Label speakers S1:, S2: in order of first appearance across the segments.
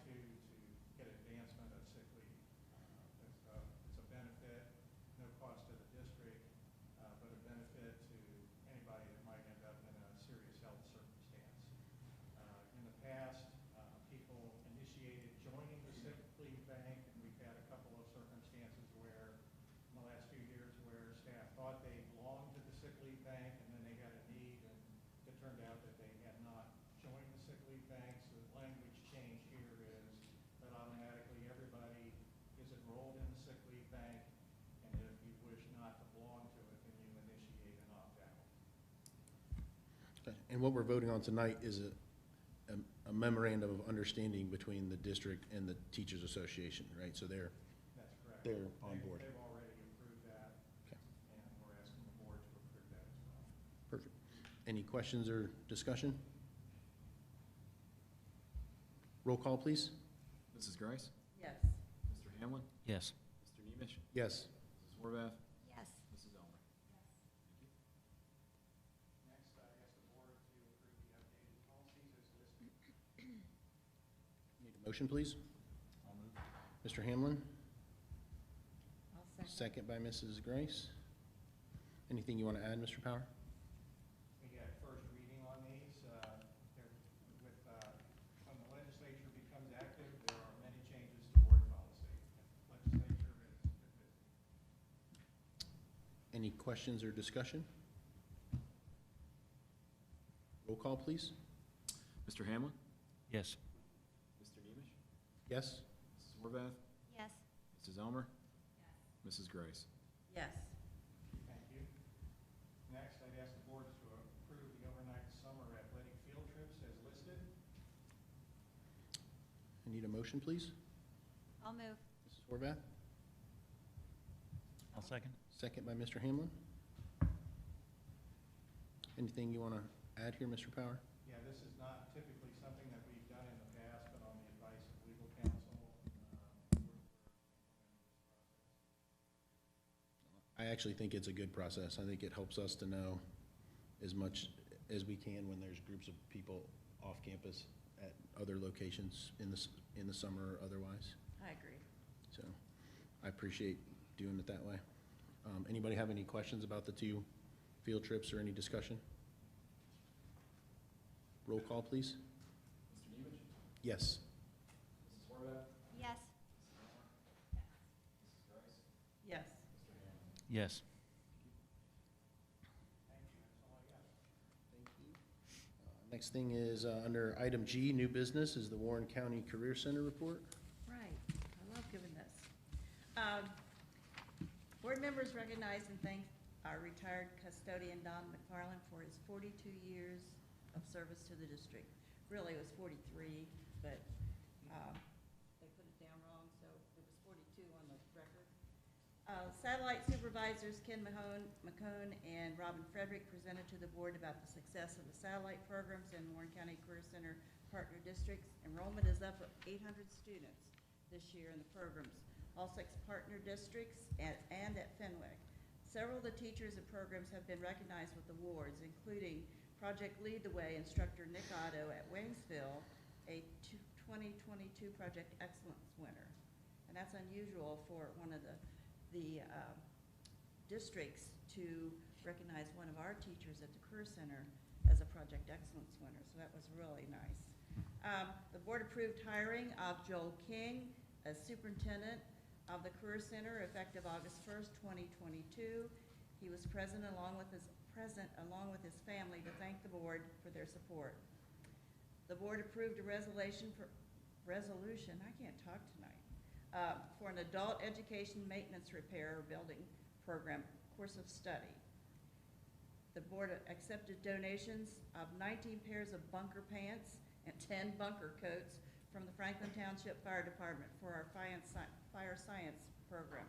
S1: Uh, uh, Uh,
S2: And what we're voting on tonight is a- a a memorandum of understanding between the district and the Teachers Association, right? So they're,
S1: That's correct.
S2: they're on
S1: They-
S2: board.
S1: They've already approved that,
S2: Okay.
S1: and we're asking the board to approve that as well.
S2: Perfect. Any questions or discussion? Roll call, please.
S3: Mrs. Grice?
S4: Yes.
S3: Mr. Hamlin?
S5: Yes.
S3: Mr. Nemish?
S2: Yes.
S3: Mrs. Horvath?
S4: Yes.
S3: Mrs. Elmer?
S1: Next, I ask the board to approve the updated policies as listed.
S2: Need a motion, please?
S3: I'll move.
S2: Mr. Hamlin,
S4: I'll second.
S2: second by Mrs. Grace. Anything you want to add, Mr. Power?
S1: We get first reading on these, uh, there- with, uh, when the legislature becomes active, there are many changes to board policy. Legislature is,
S2: Any questions or discussion? Roll call, please.
S3: Mr. Hamlin?
S5: Yes.
S3: Mr. Nemish?
S2: Yes?
S3: Mrs. Horvath?
S4: Yes.
S3: Mrs. Elmer? Mrs. Grice?
S4: Yes.
S1: thank you. Next, I'd ask the board to approve the overnight summer athletic field trips as listed.
S2: I need a motion, please.
S4: I'll move.
S2: Mrs. Horvath,
S5: I'll second.
S2: second by Mr. Hamlin. Anything you want to add here, Mr. Power?
S1: Yeah, this is not typically something that we've done in the past, but on the advice of legal counsel, uh, we're-
S2: I actually think it's a good process. I think it helps us to know as much as we can when there's groups of people off campus at other locations in the, s- in the summer or otherwise.
S4: I agree.
S2: So I appreciate doing it that way. Um, Anybody have any questions about the two field trips or any discussion? Roll call, please.
S3: Mr. Nemish?
S2: Yes.
S3: Mrs. Horvath?
S4: Yes. Yes.
S5: Yes.
S2: Next thing is, uh, under item G, new business, is the Warren County Career Center report.
S4: Right. I love giving this. Um, Board members recognize and thank our retired custodian Don McFarland for his forty-two years of service to the district. Really, it was forty-three, but, um, they put it down wrong, so it was forty-two on the record. Uh, Satellite supervisors Ken Mahone, McCone, and Robin Frederick presented to the board about the success of the satellite programs in Warren County Career Center partner districts. Enrollment is up eight hundred students this year in the programs, all six partner districts and, and at Fenwick. Several of the teachers and programs have been recognized with awards, including Project Lead the Way instructor Nick Otto at Waynesville, a two- 2022 Project Excellence winner. And that's unusual for one of the, the um, districts to recognize one of our teachers at the Career Center as a Project Excellence winner, so that was really nice. Um, The board approved hiring of Joel King as superintendent of the Career Center effective August 1st, 2022. He was present along with his, present along with his family to thank the board for their support. The board approved a resolution for, resolution, I can't talk tonight, uh, for an adult education maintenance repair or building program course of study. The board accepted donations of nineteen pairs of bunker pants and ten bunker coats from the Franklin Township Fire Department for our fiance- fire science program.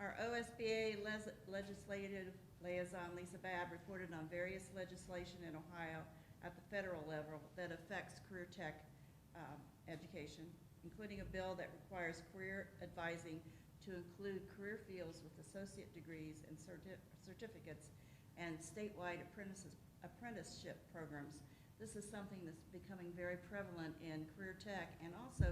S4: Our OSBA les- legislative liaison, Lisa Bab, reported on various legislation in Ohio at the federal level that affects career tech um, education, including a bill that requires career advising to include career fields with associate degrees and certi- certificates and statewide apprentices- apprenticeship programs. This is something that's becoming very prevalent in career tech and also